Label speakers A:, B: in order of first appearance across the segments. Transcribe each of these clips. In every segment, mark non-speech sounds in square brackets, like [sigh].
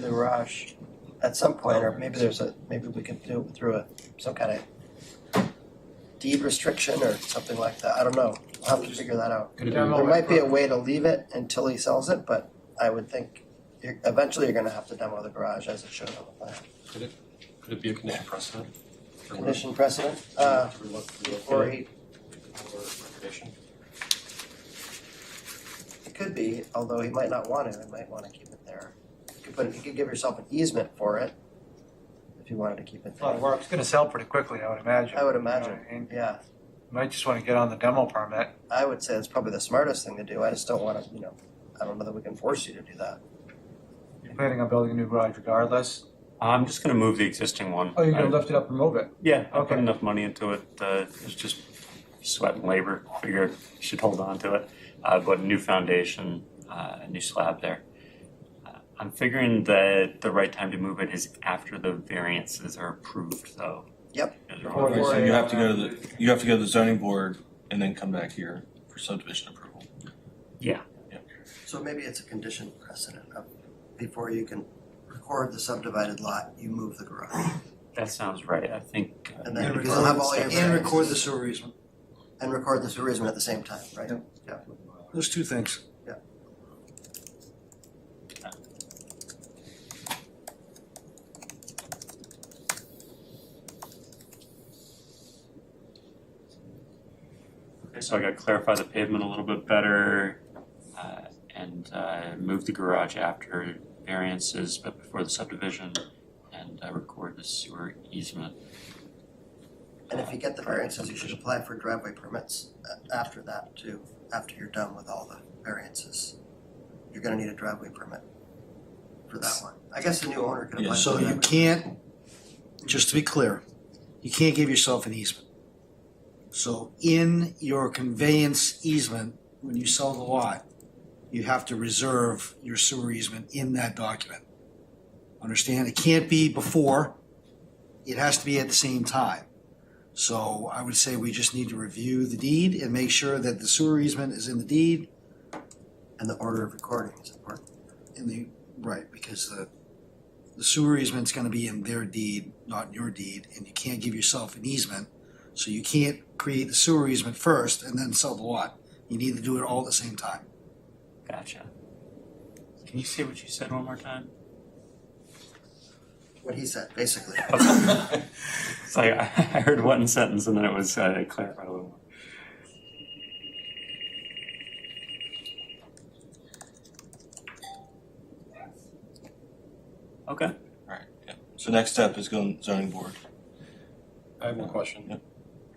A: the garage at some point, or maybe there's a, maybe we can do it through a, some kind of deed restriction or something like that, I don't know, I'll have to figure that out.
B: Could it be,
C: Demo.
A: There might be a way to leave it until he sells it, but I would think you're, eventually you're gonna have to demo the garage as it shows on the plan.
B: could it be a condition precedent? for when-
A: Condition precedent, uh,
B: to relo- relocate
A: before he,
B: for recreation?
A: it could be, although he might not want to, he might wanna keep it there. You could put, you could give yourself an easement for it, if you wanted to keep it
C: A lot of
A: there,
C: work. It's gonna sell pretty quickly, I would imagine.
A: I would imagine.
C: You know, and
A: yeah.
C: you Might just wanna get on the demo permit.
A: I would say that's probably the smartest thing to do. I just don't want to, you know, I don't know that we can force you to do that.
C: You're planning on building a new garage regardless.
D: I'm just gonna move the existing one.
C: Oh, you're
D: I-
C: gonna lift it up and move it.
D: Yeah, I put
C: Okay.
D: enough money into it, uh, it's just sweat and labor, figured should hold on to it. Uh, but new foundation, uh, a new slab there. Uh, I'm figuring that the right time to move it is after the variances are approved, though.
A: Yep.
D: Those are all-
C: Before
E: Okay, so
C: they,
E: you have to
C: uh,
E: go to the, you have to go to the zoning board and then come back here for subdivision approval.
A: So maybe it's a condition precedent of before you can record the subdivided lot, you move the garage.
D: That sounds right, I think. uh,
A: And then
D: the
A: because you'll have all your.
F: And record
A: the sewer easement. And record the sewer easement at the same time, right?
F: There's two things.
D: Okay, So I gotta clarify the pavement a little bit better, uh, and, uh, move the garage after variances, but before the subdivision, and uh, record the sewer easement.
A: And if you get the variances, you should apply for driveway permits a- after that too, after you're done with all the variances. You're gonna need a driveway permit for that one. I guess the new owner can apply.
E: Yeah,
A: for
F: So
A: that.
F: you can't, just to be clear, you can't give yourself an easement. So in your conveyance easement, when you sell the lot, you have to reserve your sewer easement in that document. Understand? It can't be before, it has to be at the same time. So I would say we just need to review the deed and make sure that the sewer easement is in the deed
A: And the order of recording is important.
F: in the, right, because the, the sewer easement's gonna be in their deed, not in your deed, and you can't give yourself an easement. So you can't create the sewer easement first and then sell the lot. You need to do it all at the same time.
D: Gotcha. Can you say what you said one more time? [laughs]
A: What he said, basically.
D: It's like I I heard one sentence and then it was uh, clarified a little more. Okay.
E: Alright, yeah. So next step is going to zoning board.
B: I have one question.
E: Yep.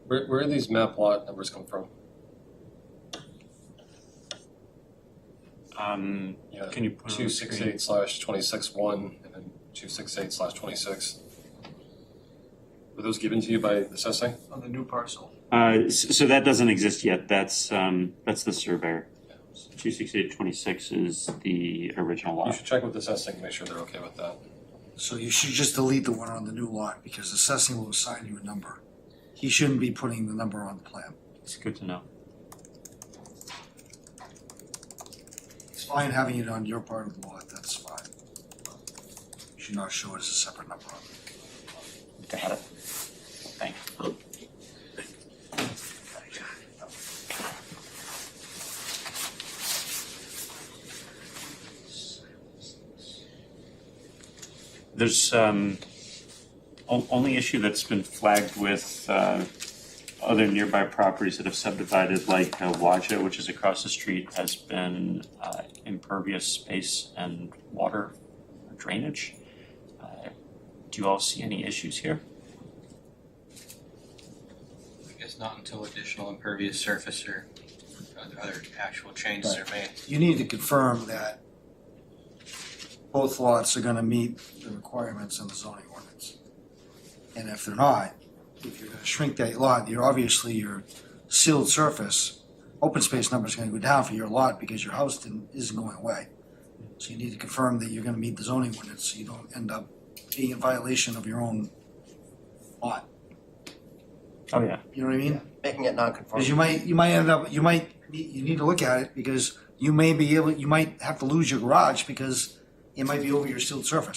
B: Where, where do these map lot numbers come from?
D: Um,
B: Yeah,
D: can you put it on
B: two
D: the
B: six
D: screen?
B: eight slash twenty-six one, and then two six eight slash twenty-six. Were those given to you by the assessing?
C: On the new parcel.
D: Uh, s- so that doesn't exist yet. That's um, that's the surveyor. Two sixty eight twenty six is the original
B: You
D: lot.
B: should check with the assessing, make sure they're okay with that.
F: So you should just delete the one on the new lot, because assessing will assign you a number. He shouldn't be putting the number on the plan.
D: It's good to know.
F: It's fine having it on your part of the lot, that's fine. You Should not show it as a separate number.
D: Got it. Thank you. There's um, o- only issue that's been flagged with uh, other nearby properties that have subdivided, like uh, Waja, which is across the street, has been uh, impervious space and water drainage. Uh, do you all see any issues here?
G: I guess not until additional impervious surface or other- other actual changes are made.
F: You need to confirm that both lots are gonna meet the requirements in the zoning ordinance. And if they're not, if you're gonna shrink that lot, you're obviously your sealed surface, open space number's gonna go down for your lot because your house didn't, isn't going away. So you need to confirm that you're gonna meet the zoning ordinance, so you don't end up being in violation of your own lot.
D: Oh, yeah.
F: You know what I mean?
A: Making it
F: Because
A: non-conforming.
F: you might, you might end up, you might, you need to look at it because you may be able, you might have to lose your garage because it might be over your sealed surface.